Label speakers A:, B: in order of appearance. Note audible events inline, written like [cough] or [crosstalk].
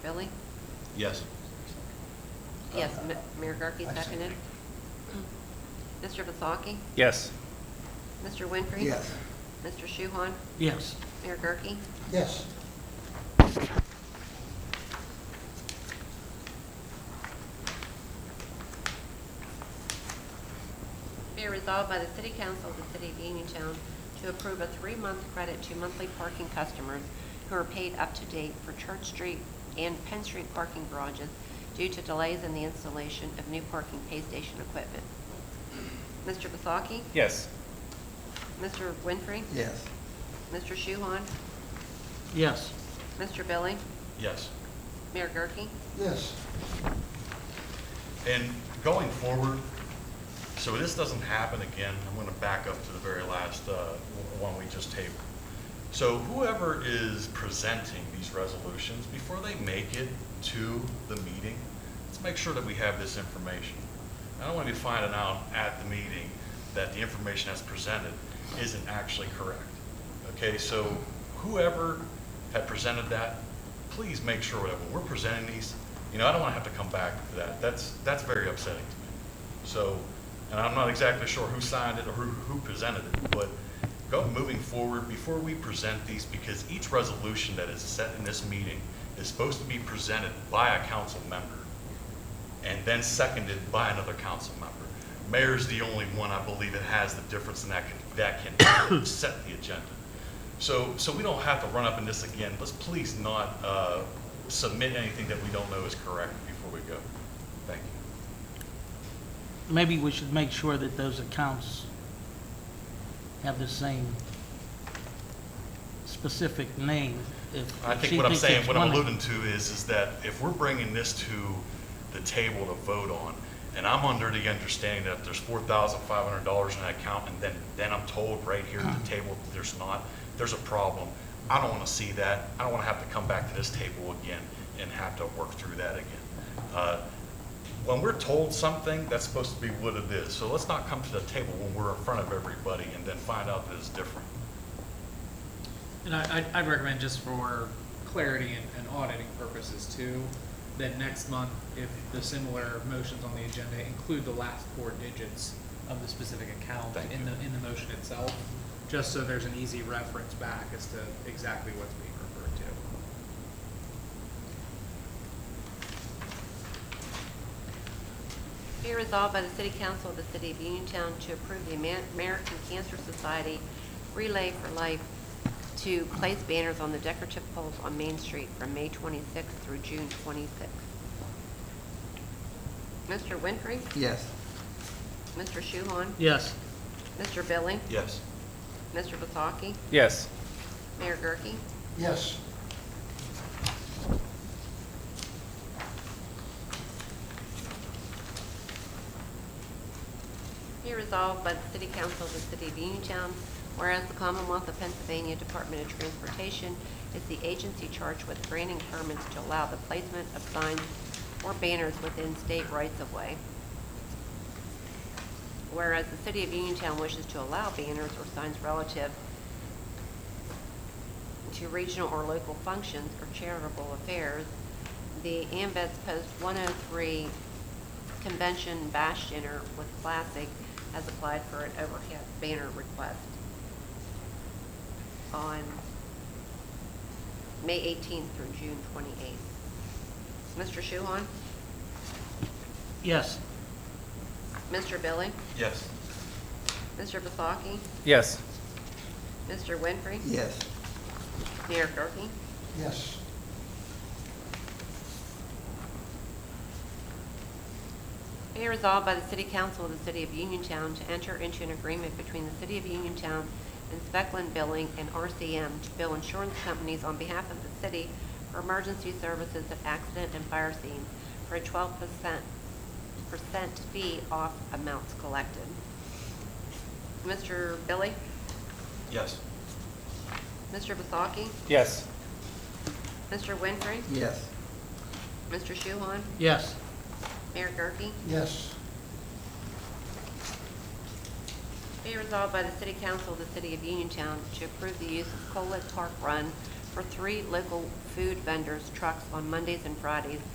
A: Billy?
B: Yes.
A: Yes,
C: Uh,
A: Ma- Mayor Gurke seconded. Mr. Vasaki?
D: Yes.
A: Mr. Winfrey?
C: Yes.
A: Mr. Shuhon?
D: Yes.
A: Mayor Gurke?
C: Yes.
A: Be resolved by the City Council of the City of Uniontown to approve a three-month credit to monthly parking customers who are paid up to date for Church Street and Penn Street parking garages due to delays in the installation of new parking pay station equipment. Mr. Vasaki?
D: Yes.
A: Mr. Winfrey?
C: Yes.
A: Mr. Shuhon?
D: Yes.
A: Mr. Billy?
B: Yes.
A: Mayor Gurke?
C: Yes.
B: And going forward, so this doesn't happen again, I'm going to back up to the very last uh, one we just tabled. So whoever is presenting these resolutions, before they make it to the meeting, let's make sure that we have this information. I don't want to be finding out at the meeting that the information that's presented isn't actually correct. Okay, so whoever had presented that, please make sure that when we're presenting these, you know, I don't want to have to come back to that. That's, that's very upsetting to me. So, and I'm not exactly sure who signed it or who, who presented it, but go, moving forward, before we present these, because each resolution that is set in this meeting is supposed to be presented by a council member and then seconded by another council member. Mayor's the only one, I believe, that has the difference and that can, that can [coughs] set the agenda. So, so we don't have to run up in this again. Let's please not uh, submit anything that we don't know is correct before we go. Thank you.
E: Maybe we should make sure that those accounts have the same specific name. If-
B: I
E: if
B: think
E: she
B: what I'm
E: thinks
B: saying,
E: it's
B: what I'm
E: one-
B: alluding to is, is that if we're bringing this to the table to vote on, and I'm under the understanding that if there's four thousand five hundred dollars in that account, and then, then I'm told right here at the table that there's not, there's a problem. I don't want to see that. I don't want to have to come back to this table again and have to work through that again. Uh, When we're told something, that's supposed to be what it is. So let's not come to the table when we're in front of everybody and then find out that it's different.
F: And I, I'd- I'd recommend just for clarity and, and auditing purposes too, that next month, if the similar motions on the agenda include the last four digits of the specific account
B: Thank
F: in
B: you.
F: the, in the motion itself, just so there's an easy reference back as to exactly what's being referred to.
A: Be resolved by the City Council of the City of Uniontown to approve the Amer- American Cancer Society Relay for Life to place banners on the decorative poles on Main Street from May 26th through June 26th. Mr. Winfrey?
C: Yes.
A: Mr. Shuhon?
E: Yes,
A: Mr. Billy?
B: Yes.
A: Mr. Vasaki?
D: Yes.
A: Mayor Gurke?
C: Yes.
A: Be resolved by the City Council of the City of Uniontown, whereas the Commonwealth of Pennsylvania Department of Transportation is the agency charged with granting permits to allow the placement of signs or banners within state rights-of-way. Whereas the City of Uniontown wishes to allow banners or signs relative to regional or local functions or charitable affairs, the Ambets Post 103 Convention Bash Dinner with Classic has applied for an overhead banner request on May 18th through June 28th. Mr. Shuhon?
E: yes,
A: Mr. Billy?
B: Yes.
A: Mr. Vasaki?
D: Yes.
A: Mr. Winfrey?
C: Yes.
A: Mayor Gurke?
C: Yes.
A: Be resolved by the City Council of the City of Uniontown to enter into an agreement between the City of Uniontown and Specklin Billing and RCM to bill insurance companies on behalf of the city for emergency services at accident and fire scenes for a twelve percent, percent fee off amounts collected. Mr. Billy?
B: Yes.
A: Mr. Vasaki?
D: Yes.
A: Mr. Winfrey?
C: Yes.
A: Mr. Shuhon?
E: yes.
A: Mayor Gurke?
C: Yes.
A: Be resolved by the City Council of the City of Uniontown to approve the use of Collet Park Run for three local food vendors' trucks on Mondays and Fridays